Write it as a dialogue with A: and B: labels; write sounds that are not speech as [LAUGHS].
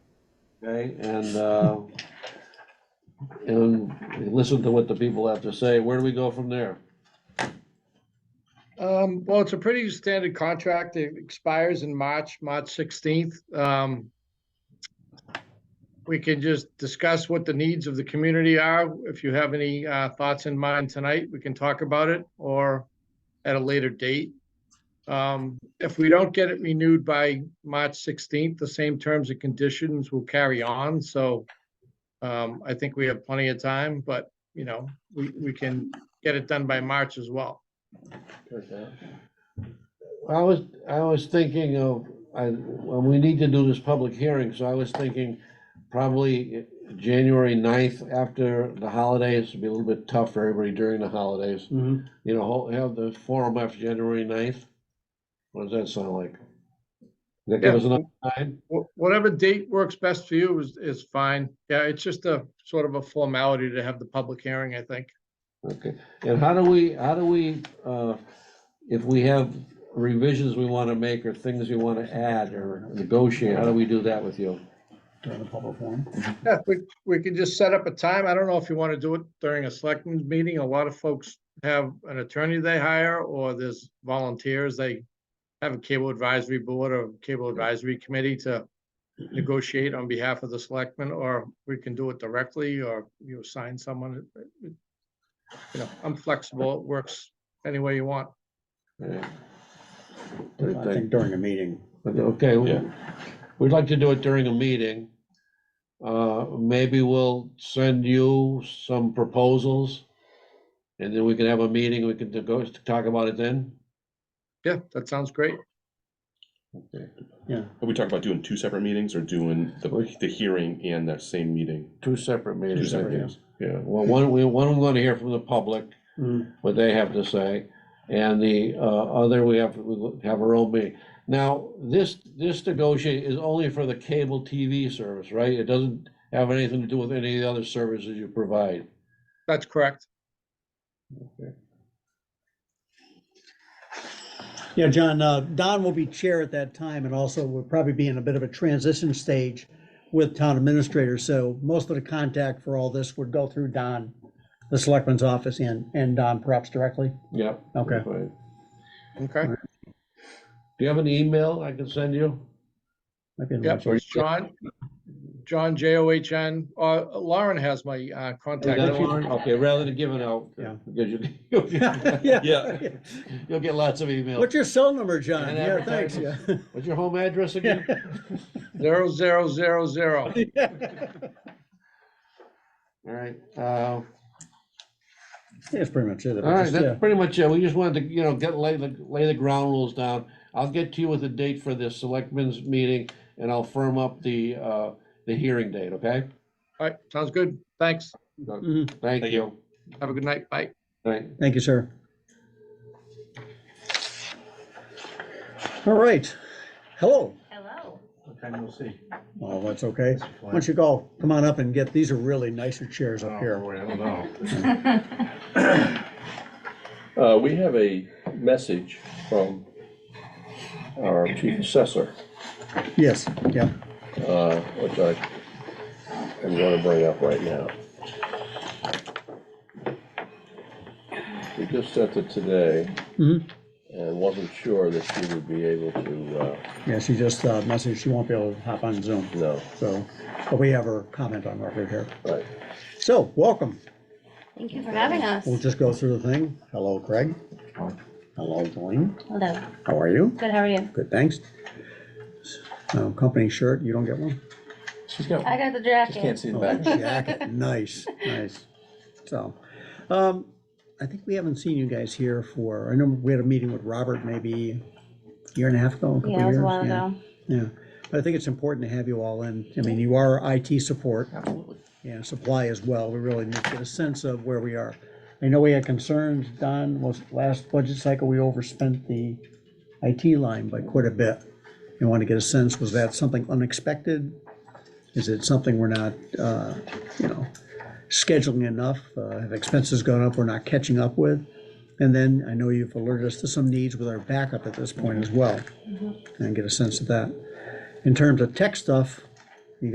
A: okay, and, uh, and listen to what the people have to say, where do we go from there?
B: Um, well, it's a pretty standard contract. It expires in March, March sixteenth. Um, we can just discuss what the needs of the community are. If you have any, uh, thoughts in mind tonight, we can talk about it or at a later date. Um, if we don't get it renewed by March sixteenth, the same terms and conditions will carry on, so um, I think we have plenty of time, but, you know, we, we can get it done by March as well.
A: I was, I was thinking of, I, well, we need to do this public hearing, so I was thinking probably January 9th after the holidays, it'd be a little bit tough for everybody during the holidays.
C: Mhm.
A: You know, hol- have the forum after January 9th. What does that sound like? That give us enough time?
B: Wh- Whatever date works best for you is, is fine. Yeah, it's just a sort of a formality to have the public hearing, I think.
A: Okay, and how do we, how do we, uh, if we have revisions we want to make or things we want to add or negotiate, how do we do that with you?
C: During the public forum.
B: Yeah, we, we could just set up a time. I don't know if you want to do it during a selectmen's meeting. A lot of folks have an attorney they hire or there's volunteers. They have a cable advisory board or cable advisory committee to negotiate on behalf of the selectmen, or we can do it directly, or you assign someone. You know, I'm flexible. It works any way you want.
A: Yeah.
C: I think during a meeting.
A: Okay, we- we'd like to do it during a meeting. Uh, Maybe we'll send you some proposals, and then we can have a meeting, we can go talk about it then.
B: Yeah, that sounds great.
C: Yeah,
D: Are we talking about doing two separate meetings or doing the, the hearing and that same meeting?
A: Two separate
D: Two
A: meetings. I
D: separate
A: think.
D: meetings. Yeah.
A: Well, one, we, one, we want to hear from the public,
C: Mm.
A: what they have to say, and the uh, other, we have, we have our own meeting. Now, this, this negotiate is only for the cable TV service, right? It doesn't have anything to do with any of the other services you provide.
B: That's correct.
C: yeah, John, uh, Don will be chair at that time, and also we'll probably be in a bit of a transition stage with town administrator, so most of the contact for all this would go through Don, the selectman's office, and, and Don perhaps directly.
A: Yep.
C: Okay.
A: Right.
B: Okay.
A: Do you have an email I can send you?
C: Might be a
B: Yep,
C: little-
B: it's John, John, J O H N, uh, Lauren has my, uh,
A: Is
B: contact.
A: that
B: info.
A: one? Okay, rather than giving out,
C: Yeah.
A: because [LAUGHS] you,
C: [LAUGHS] Yeah.
A: you'll get lots of emails.
C: What's your cell number, John?
A: And
C: Yeah, thanks, yeah. [LAUGHS]
A: What's your home address again?
B: Zero, zero, zero, zero.
A: All right, uh,
C: That's pretty much it.
A: all right,
C: Just,
A: that's
C: yeah.
A: pretty much it. We just wanted to, you know, get, lay the, lay the ground rules down. I'll get to you with a date for the selectmen's meeting, and I'll firm up the, uh, the hearing date, okay?
B: All right, sounds good. Thanks.
C: Mhm.
A: Thank you.
B: Have a good night. Bye.
A: Right,
C: Thank you, sir. All right. Hello.
E: Hello.
C: Oh, that's okay. Why don't you go, come on up and get, these are really nicer chairs
F: Oh,
C: up
A: Oh,
C: here.
F: Uh, we have a message from our chief assessor,
C: Yes, yeah.
F: uh, which I am gonna bring up right now. We just sent it today.
C: Mhm.
F: And wasn't sure that she would be able to, uh,
C: Yeah, she just uh, messaged, she won't be able to hop on Zoom,
F: no,
C: so, but we have her comment on record here.
F: right.
C: So, welcome.
E: Thank you for having us.
C: We'll just go through the thing. Hello, Craig. Hello, Dwayne.
E: Hello.
C: How are you?
E: Good, how are you?
C: Good, thanks. Um, Company shirt, you don't get one?
G: She's got,
E: I got the
G: just can't
E: jacket.
G: see the
C: Oh,
G: back.
C: good jacket. Nice, nice. So, um, I think we haven't seen you guys here for, I know we had a meeting with Robert maybe a year and a half ago, a couple
E: Yeah, it was a
C: years,
E: while
C: yeah,
E: ago.
C: Yeah, but I think it's important to have you all in. I mean, you are IT support
G: Absolutely.
C: and supply as well. We really need to get a sense of where we are. I know we had concerns, Don, was last budget cycle, we overspent the IT line by quite a bit. I want to get a sense, was that something unexpected? Is it something we're not, uh, you know, scheduling enough? Uh, Have expenses gone up we're not catching up with? And then I know you've alerted us to some needs with our backup at this point as well. And get a sense of that. In terms of tech stuff,